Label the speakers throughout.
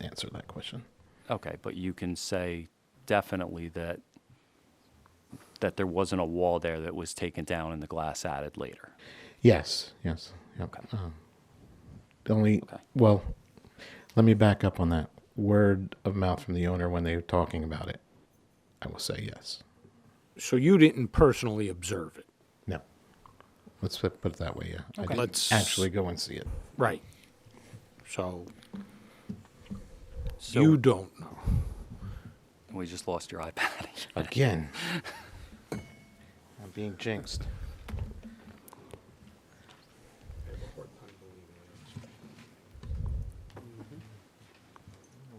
Speaker 1: answer that question.
Speaker 2: Okay, but you can say definitely that, that there wasn't a wall there that was taken down and the glass added later.
Speaker 1: Yes, yes. Yep.
Speaker 2: Okay.
Speaker 1: Um, the only,
Speaker 2: Okay.
Speaker 1: well, let me back up on that. Word of mouth from the owner when they were talking about it, I will say yes.
Speaker 3: So you didn't personally observe it.
Speaker 1: No. Let's put put it that way, yeah. I didn't
Speaker 3: Let's-
Speaker 1: actually go and see it.
Speaker 3: Right. So
Speaker 2: So
Speaker 3: you don't know.
Speaker 2: We just lost your iPad.
Speaker 1: Again. I'm being jinxed.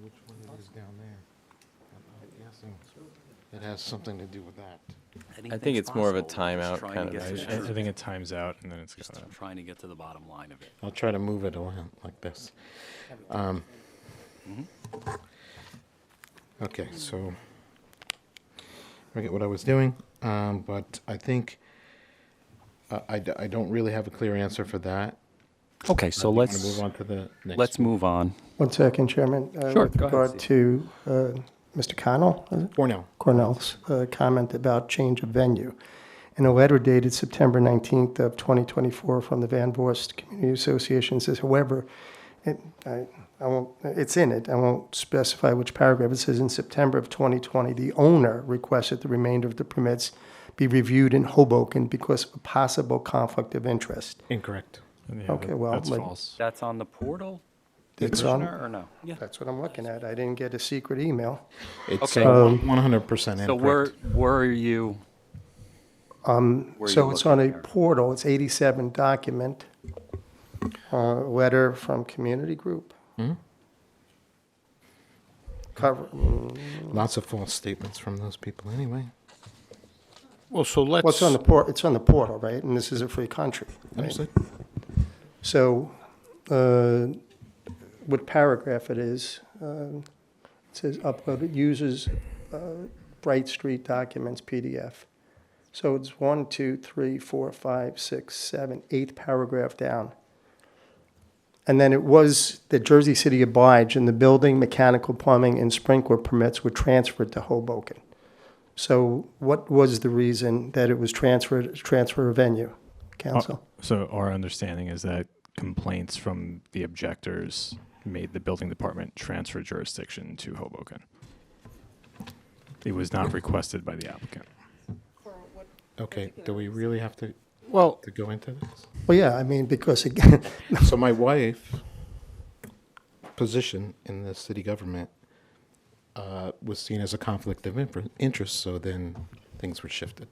Speaker 1: Which one it is down there? I'm guessing That has something to do with that.
Speaker 4: I think it's more of a timeout kind of
Speaker 5: I, I think it times out and then it's
Speaker 2: Just
Speaker 5: gone up.
Speaker 2: trying to get to the bottom line of it.
Speaker 1: I'll try to move it around like this. Um, Okay, so, I forget what I was doing, um, but I think, uh, I, d- I don't really have a clear answer for that.
Speaker 2: Okay, so
Speaker 1: I think I'm gonna
Speaker 2: let's,
Speaker 1: Move on to the next.
Speaker 2: let's move on.
Speaker 6: One second, Chairman. Uh,
Speaker 2: Sure,
Speaker 6: With
Speaker 2: go ahead,
Speaker 6: regard to uh, Mr. Connell, is it?
Speaker 1: Or no.
Speaker 6: Cornell's uh, comment about change of venue. In a letter dated September 19th of 2024 from the Van Voorst Community Association says, however, it, I, I won't, it's in it, I won't specify which paragraph, it says in September of 2020, the owner requested the remainder of the permits be reviewed in Hoboken because of a possible conflict of interest.
Speaker 1: Incorrect.
Speaker 5: Yeah,
Speaker 6: Okay,
Speaker 5: that-
Speaker 6: well,
Speaker 5: that's
Speaker 6: like-
Speaker 5: false.
Speaker 2: That's on the portal,
Speaker 6: It's on,
Speaker 2: Commissioner, or no? Yeah.
Speaker 6: that's what I'm looking at, I didn't get a secret email.
Speaker 1: It's uh,
Speaker 2: Okay.
Speaker 1: one hundred percent
Speaker 2: So where,
Speaker 1: incorrect.
Speaker 2: where are you? Where are
Speaker 6: So
Speaker 2: you
Speaker 6: it's
Speaker 2: looking
Speaker 6: on a
Speaker 2: there?
Speaker 6: portal, it's 87 document, uh, letter from community group. Cover, mm,
Speaker 1: Lots of false statements from those people anyway.
Speaker 3: Well, so let's.
Speaker 6: well, it's on the port, it's on the portal, right? And this is a free country. right?
Speaker 1: Understood?
Speaker 6: So, uh, what paragraph it is, um, it says uploaded uses uh, Bright Street documents PDF. So it's one, two, three, four, five, six, seven, eighth paragraph down. And then it was that Jersey City obliged and the building, mechanical plumbing, and sprinkler permits were transferred to Hoboken. So what was the reason that it was transferred, transfer of venue, council?
Speaker 5: So our understanding is that complaints from the objectors made the building department transfer jurisdiction to Hoboken. It was not requested by the applicant.
Speaker 1: Okay, do we really have to,
Speaker 3: Well,
Speaker 1: to go into this?
Speaker 6: Well, yeah, I mean, because again,
Speaker 1: So my wife position in the city government uh, was seen as a conflict of infer- interest, so then things were shifted.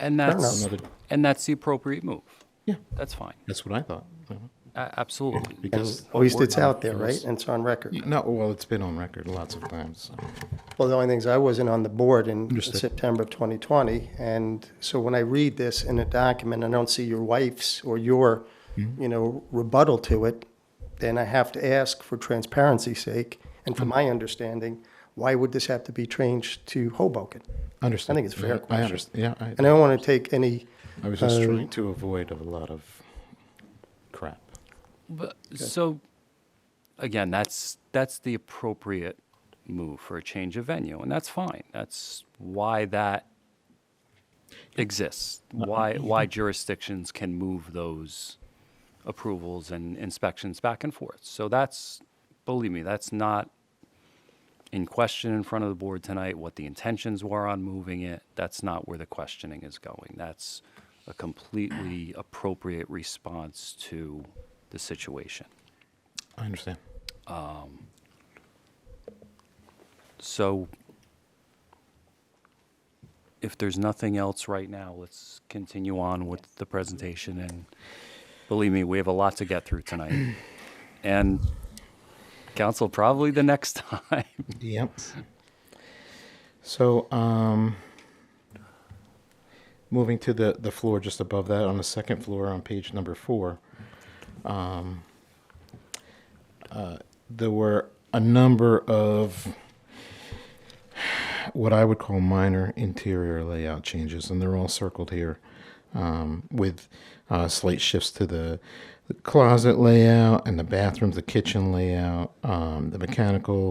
Speaker 2: And that's,
Speaker 1: enough. Another-
Speaker 2: and that's the appropriate move.
Speaker 1: Yeah,
Speaker 2: That's fine.
Speaker 1: that's what I thought. Mhm.
Speaker 2: A- Absolutely.
Speaker 1: Because
Speaker 6: at least it's Oh, out there,
Speaker 1: It
Speaker 6: right?
Speaker 1: was-
Speaker 6: And it's on record.
Speaker 1: No, well, it's been on record lots of times. so.
Speaker 6: Well, the only thing is I wasn't on the board in
Speaker 1: Understood.
Speaker 6: September of 2020. And so when I read this in a document, I don't see your wife's or your, you know, rebuttal to it, then I have to ask for transparency's sake and for my understanding, why would this have to be changed to Hoboken?
Speaker 1: Understood.
Speaker 6: it's a fair
Speaker 1: Yeah, I
Speaker 6: question.
Speaker 1: understand, yeah. I-
Speaker 6: And I don't want to take any,
Speaker 1: I was just
Speaker 6: Uh,
Speaker 1: trying to avoid a lot of crap.
Speaker 2: But, so, again, that's, that's the appropriate move for a change of venue, and that's fine. That's why that exists, why, why jurisdictions can move those approvals and inspections back and forth. So that's, believe me, that's not in question in front of the board tonight, what the intentions were on moving it. That's not where the questioning is going. That's a completely appropriate response to the situation.
Speaker 1: I understand.
Speaker 2: So if there's nothing else right now, let's continue on with the presentation. And believe me, we have a lot to get through tonight. And council, probably the next time.
Speaker 1: Yep. So, um, moving to the, the floor just above that, on the second floor on page number four, um, uh, there were a number of what I would call minor interior layout changes, and they're all circled here um, with uh, slight shifts to the the closet layout and the bathrooms, the kitchen layout, um, the mechanical